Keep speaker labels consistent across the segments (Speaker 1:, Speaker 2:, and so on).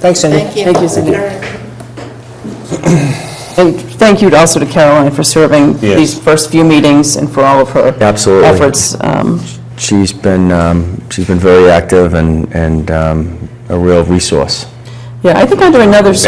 Speaker 1: Thanks, Cindy.
Speaker 2: Thank you.
Speaker 3: Thank you, Cindy.
Speaker 2: All right.
Speaker 3: And thank you also to Caroline for serving
Speaker 4: Yes.
Speaker 3: these first few meetings and for all of her
Speaker 4: Absolutely.
Speaker 3: efforts. Um,
Speaker 4: She's been, um, she's been very active and, and um, a real resource.
Speaker 3: Yeah, I think under another
Speaker 4: ways.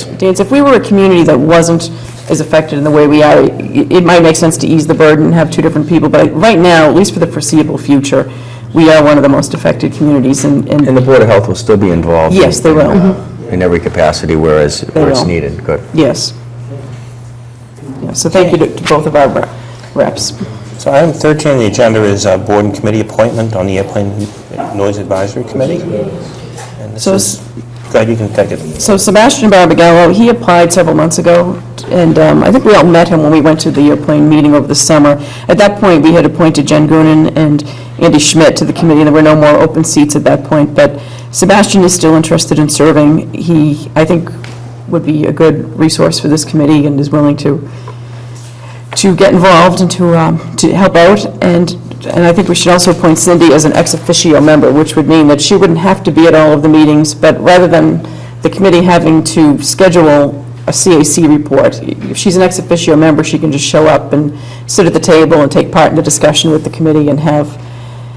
Speaker 3: circumstance, if we were a community that wasn't as affected in the way we are, i- it might make sense to ease the burden and have two different people, but right now, at least for the foreseeable future, we are one of the most affected communities, and,
Speaker 4: And
Speaker 3: and
Speaker 4: the Board of Health will still be involved.
Speaker 3: Yes, they will. Mm-hmm.
Speaker 4: in, uh, In every capacity whereas, where it's
Speaker 3: will.
Speaker 4: needed. Good.
Speaker 3: yes. Yeah, So thank you to to both of our rep- reps.
Speaker 1: So item 13 on the agenda is uh, board and committee appointment on the Airplane Noise Advisory Committee. And this
Speaker 3: So s-
Speaker 1: is, glad you can take it.
Speaker 3: So Sebastian Barbagallo, he applied several months ago, and um, I think we all met him when we went to the airplane meeting over the summer. At that point, we had appointed Jen Grunin and Andy Schmidt to the committee, and there were no more open seats at that point, but Sebastian is still interested in serving. He, I think, would be a good resource for this committee and is willing to, to get involved and to, um, to help out, and, and I think we should also appoint Cindy as an ex officio member, which would mean that she wouldn't have to be at all of the meetings, but rather than the committee having to schedule a CAC report, if she's an ex officio member, she can just show up and sit at the table and take part in the discussion with the committee and have,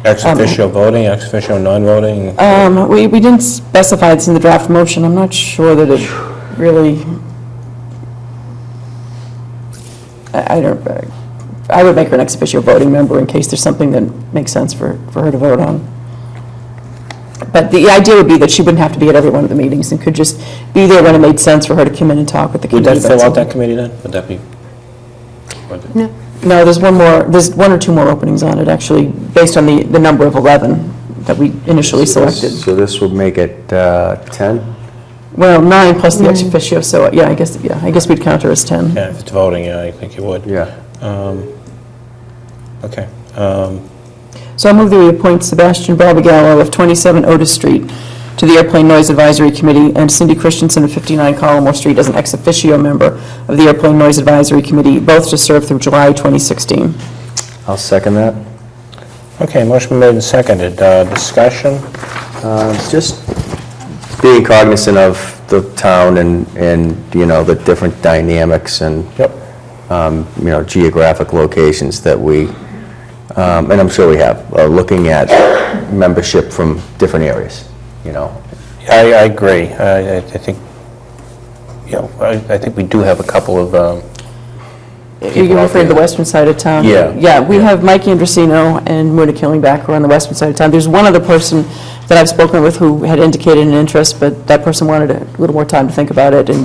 Speaker 1: Ex officio voting, ex officio non-voting.
Speaker 3: um, we, we didn't specify this in the draft motion, I'm not sure that it really, I I don't, I would make her an ex officio voting member in case there's something that makes sense for, for her to vote on. But the idea would be that she wouldn't have to be at every one of the meetings and could just be there when it made sense for her to come in and talk with the
Speaker 1: Would
Speaker 3: committee.
Speaker 1: that fill
Speaker 3: about
Speaker 1: out that
Speaker 3: something.
Speaker 1: committee then? Would that be? would-
Speaker 3: No, there's one more, there's one or two more openings on it, actually, based on the, the number of 11 that we initially selected.
Speaker 4: So this would make it uh, 10?
Speaker 3: Well, nine plus the ex officio, so, yeah, I guess, yeah, I guess we'd count her as 10.
Speaker 1: Yeah, if it's voting, yeah, I think you would. Um,
Speaker 4: Yeah.
Speaker 1: Okay. Um,
Speaker 3: So I move that we appoint Sebastian Barbagallo of 27 Otis Street to the Airplane Noise Advisory Committee, and Cindy Christensen of 59 Collimore Street as an ex officio member of the Airplane Noise Advisory Committee, both to serve through July 2016.
Speaker 4: I'll second that.
Speaker 1: Okay, motion made and seconded. Uh, Discussion?
Speaker 4: Um, Just being cognizant of the town and, and, you know, the different dynamics and um, you know, geographic locations that we, um, and I'm sure we have, are looking at membership from different areas, you know.
Speaker 1: I, I agree. I, I I think, you know, I, I think we do have a couple of, um,
Speaker 3: You referred to the western side of town?
Speaker 4: Yeah.
Speaker 3: Yeah, we have Mike Andrusino and Muna Killingback who are on the western side of town. There's one other person that I've spoken with who had indicated an interest, but that person wanted a little more time to think about it and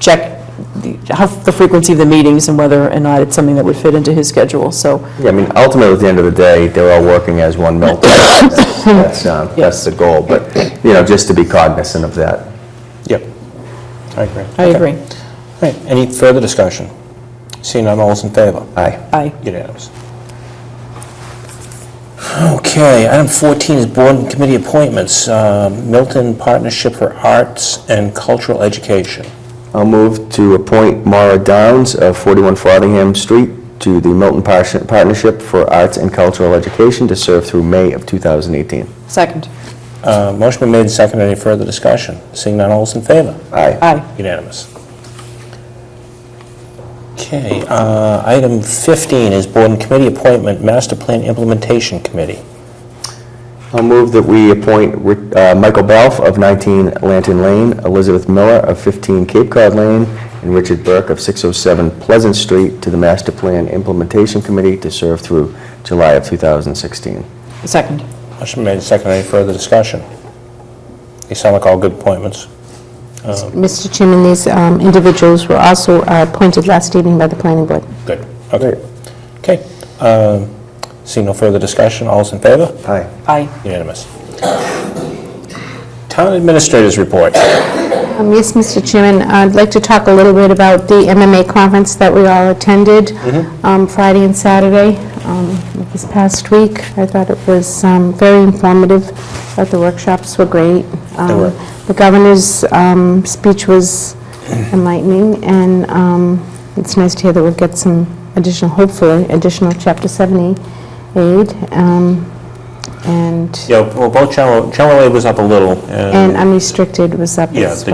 Speaker 3: check the how- the frequency of the meetings and whether or not it's something that would fit into his schedule, so,
Speaker 4: Yeah, I mean, ultimately, at the end of the day, they're all working as one mill. That's, um, that's the goal, but, you know, just to be cognizant of that.
Speaker 1: yep. I agree.
Speaker 3: I agree.
Speaker 1: All right, any further discussion? Seeing none, all's in favor?
Speaker 4: Aye.
Speaker 3: Aye.
Speaker 1: Unanimous. Okay, item 14 is board and committee appointments. Um, Milton Partnership for Arts and Cultural Education.
Speaker 4: I'll move to appoint Mara Downs of 41 Frothingham Street to the Milton Par- Partnership for Arts and Cultural Education to serve through May of 2018.
Speaker 3: Second.
Speaker 1: Uh, Motion been made and seconded. Any further discussion? Seeing none, all's in favor?
Speaker 4: Aye.
Speaker 3: Aye.
Speaker 1: Unanimous. Okay, uh, item 15 is board and committee appointment, Master Plan Implementation Committee.
Speaker 4: I'll move that we appoint Ri- uh, Michael Balf of 19 Lanton Lane, Elizabeth Miller of 15 Cape Cod Lane, and Richard Burke of 607 Pleasant Street to the Master Plan Implementation Committee to serve through July of 2016.
Speaker 3: Second.
Speaker 1: Motion made and seconded. Any further discussion? They sound like all good appointments.
Speaker 5: Mr. Chairman, these um, individuals were also uh, appointed last evening by the planning board.
Speaker 1: Good, okay. Okay, um, seeing no further discussion, all's in favor?
Speaker 4: Aye.
Speaker 3: Aye.
Speaker 1: Unanimous. Town Administrators Report.
Speaker 5: Um, Yes, Mr. Chairman, I'd like to talk a little bit about the MMA conference that we all attended um, Friday and Saturday um, this past week. I thought it was um, very informative, thought the workshops were great. They
Speaker 1: were.
Speaker 5: The governor's um, speech was enlightening, and um, it's nice to hear that we'll get some additional, hopefully, additional Chapter 70 aid. Um,
Speaker 1: and
Speaker 5: Yeah, well, both general, general aid was up a little,
Speaker 1: and
Speaker 5: and,
Speaker 1: unrestricted was up
Speaker 5: Um, yeah,
Speaker 1: as
Speaker 5: the